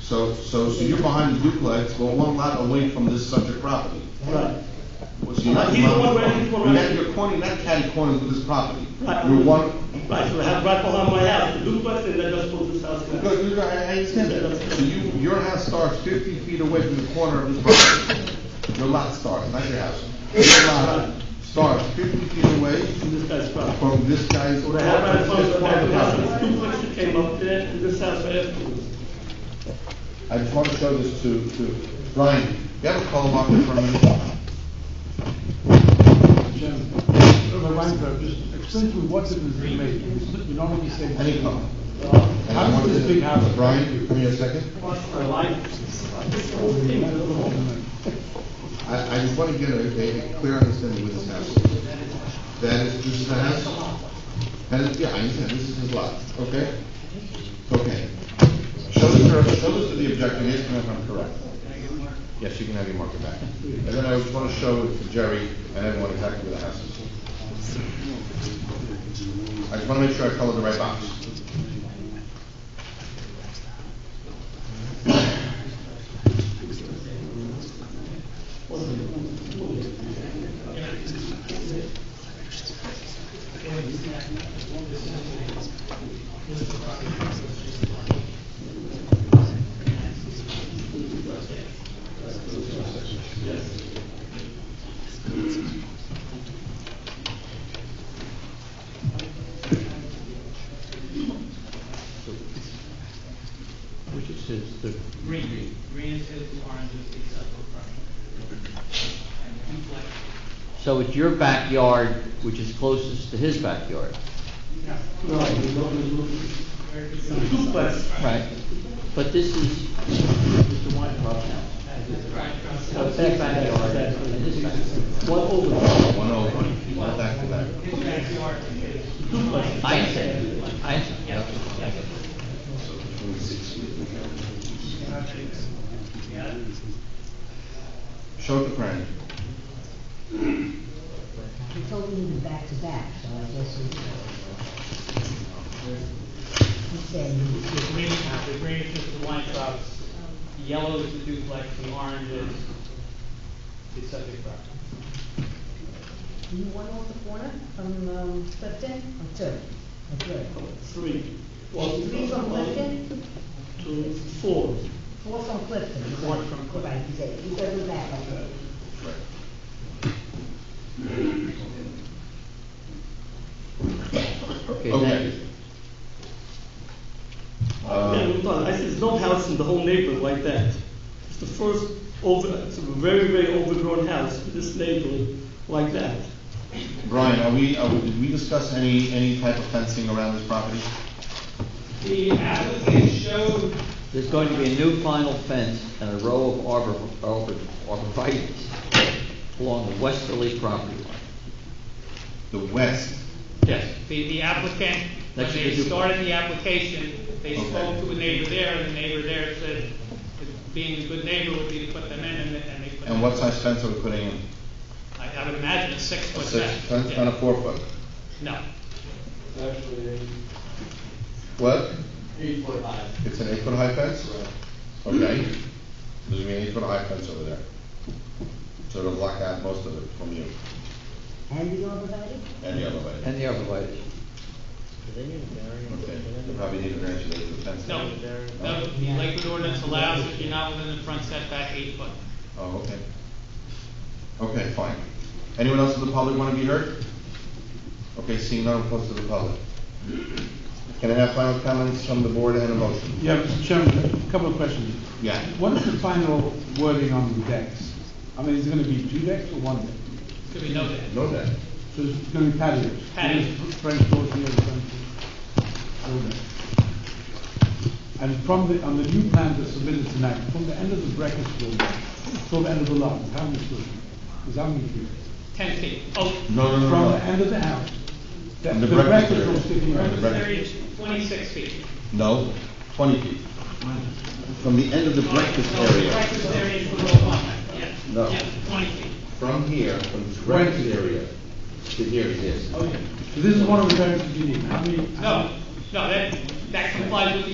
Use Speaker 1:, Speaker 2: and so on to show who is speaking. Speaker 1: So, so, so you're behind the duplex, but one lot away from this subject property.
Speaker 2: Right.
Speaker 1: So you're not-
Speaker 2: He's the one where- he's the one where-
Speaker 1: You're cornering, not catty cornering with this property.
Speaker 2: Right.
Speaker 1: You're one,
Speaker 2: Right, so I have right behind my house, the duplex, and then just put this house
Speaker 1: Look,
Speaker 2: now.
Speaker 1: look, I I understand that. So you, your house starts fifty feet away from the corner of this property. Your lot starts, not your house. Your lot starts fifty feet away
Speaker 2: And this guy's property.
Speaker 1: from this guy's.
Speaker 2: So I have right in front of the back of the house, this
Speaker 1: property.
Speaker 2: duplex that came up there, and this house right afterwards.
Speaker 1: I just want to show this to, to Brian. You have a call up in front of me?
Speaker 3: Chairman, Ryan, just explain to me what difference it makes, you normally say.
Speaker 1: Any call?
Speaker 3: How does this big house?
Speaker 1: Brian, give me a second.
Speaker 2: My life, this whole thing, I don't know.
Speaker 1: I, I just want to get a, a clear understanding with this house. That is, this is the house? That is, yeah, I understand, this is his lot, okay? Okay. Show this to, show this to the objector, yes, if I'm correct. Yes, you can have your marker back. And then I just want to show it to Jerry and everyone exactly where the house is. I just want to make sure I colored the right box.
Speaker 4: Green, green, green is his, orange is the separate And duplex,
Speaker 5: So it's your backyard, which is closest to his backyard,
Speaker 2: Right, you know, there's no- it's a duplex.
Speaker 5: right? But this is Mr. Weintraub's house. So it's his backyard and his backyard.
Speaker 2: One over,
Speaker 1: One oh one, one back to back.
Speaker 4: his backyard and his.
Speaker 2: duplex.
Speaker 5: I understand, I understand.
Speaker 1: Show it to Fran.
Speaker 6: He told me he was back to back, um, so I guess he. He said he was.
Speaker 4: The green, the green is just the wine shops, the yellow is the duplex, the orange is the subject property.
Speaker 6: Do you want off the corner from, um, Clifton or two? Or three?
Speaker 2: Three. Well,
Speaker 6: Three from Clifton,
Speaker 2: Two, four.
Speaker 6: four from Clifton.
Speaker 4: Four from Clifton.
Speaker 6: Right, he said, he said it back, okay.
Speaker 5: Okay, thank you.
Speaker 2: Yeah,
Speaker 1: Uh,
Speaker 2: we've done. I see there's no house in the whole neighborhood like that. It's the first over, it's a very, very overgrown house in this neighborhood like that.
Speaker 1: Brian, are we, are we, did we discuss any, any type of fencing around this property?
Speaker 4: The applicant showed
Speaker 5: There's going to be a new final fence and a row of arbor, arbor, arborvitae's along the westerly property line.
Speaker 1: The west,
Speaker 4: Yes, the, the applicant, when
Speaker 5: That's
Speaker 4: they
Speaker 5: the-
Speaker 4: started the application, they
Speaker 1: Okay.
Speaker 4: spoke to a neighbor there, and the neighbor there said, that being a good neighbor would be to put them in, and they, and they put them.
Speaker 1: and what size fence are we putting in?
Speaker 4: I, I would imagine a six
Speaker 1: A
Speaker 4: foot
Speaker 1: six
Speaker 4: back.
Speaker 1: fence and a four foot?
Speaker 4: No,
Speaker 1: What? Eight foot high. It's an eight foot high fence? Okay, there's gonna be an eight foot high fence over there. So it'll block out most of it from you
Speaker 6: And the arborvitae?
Speaker 1: and the other way.
Speaker 5: And the arborvitae.
Speaker 1: Okay, you probably need a variance for eight foot fence.
Speaker 4: no, no, the Lakewood ordinance allows if you're not within the front setback eight foot.
Speaker 1: Oh, okay. Okay, fine. Anyone else in the public want to be heard? Okay, seeing none, close to the public. Can I have final comments from the board and a motion?
Speaker 3: Yeah, Mr. Chairman, a couple of questions.
Speaker 1: Yeah.
Speaker 3: What is the final wording on the decks? I mean, is it gonna be two decks or one deck?
Speaker 4: It's gonna be no deck.
Speaker 1: Know that.
Speaker 3: So it's gonna be patios?
Speaker 4: Patios.
Speaker 3: French doors here and French doors there. And from the, on the new plan that's submitted tonight, from the end of the breakfast room till the end of the lot, how many feet? Because I'm confused.
Speaker 4: ten feet. Oh,
Speaker 1: No, no,
Speaker 3: From
Speaker 1: no,
Speaker 3: the
Speaker 1: no.
Speaker 3: end of the house. The
Speaker 1: And the
Speaker 3: the
Speaker 1: breakfast
Speaker 3: breakfast
Speaker 1: area.
Speaker 3: room sticking
Speaker 1: Right, the
Speaker 3: out.
Speaker 1: breakfast-
Speaker 4: there is twenty-six feet.
Speaker 1: No, twenty feet. From the end of the breakfast
Speaker 4: No, the
Speaker 1: area,
Speaker 4: Breakfast area is the low one, yeah,
Speaker 1: No.
Speaker 4: yeah, twenty feet.
Speaker 1: from here, from this breakfast area to here it is.
Speaker 5: Oh,
Speaker 3: So this is one of the variances you need. How many? how
Speaker 4: No,
Speaker 3: many-
Speaker 4: no, that, that complies with the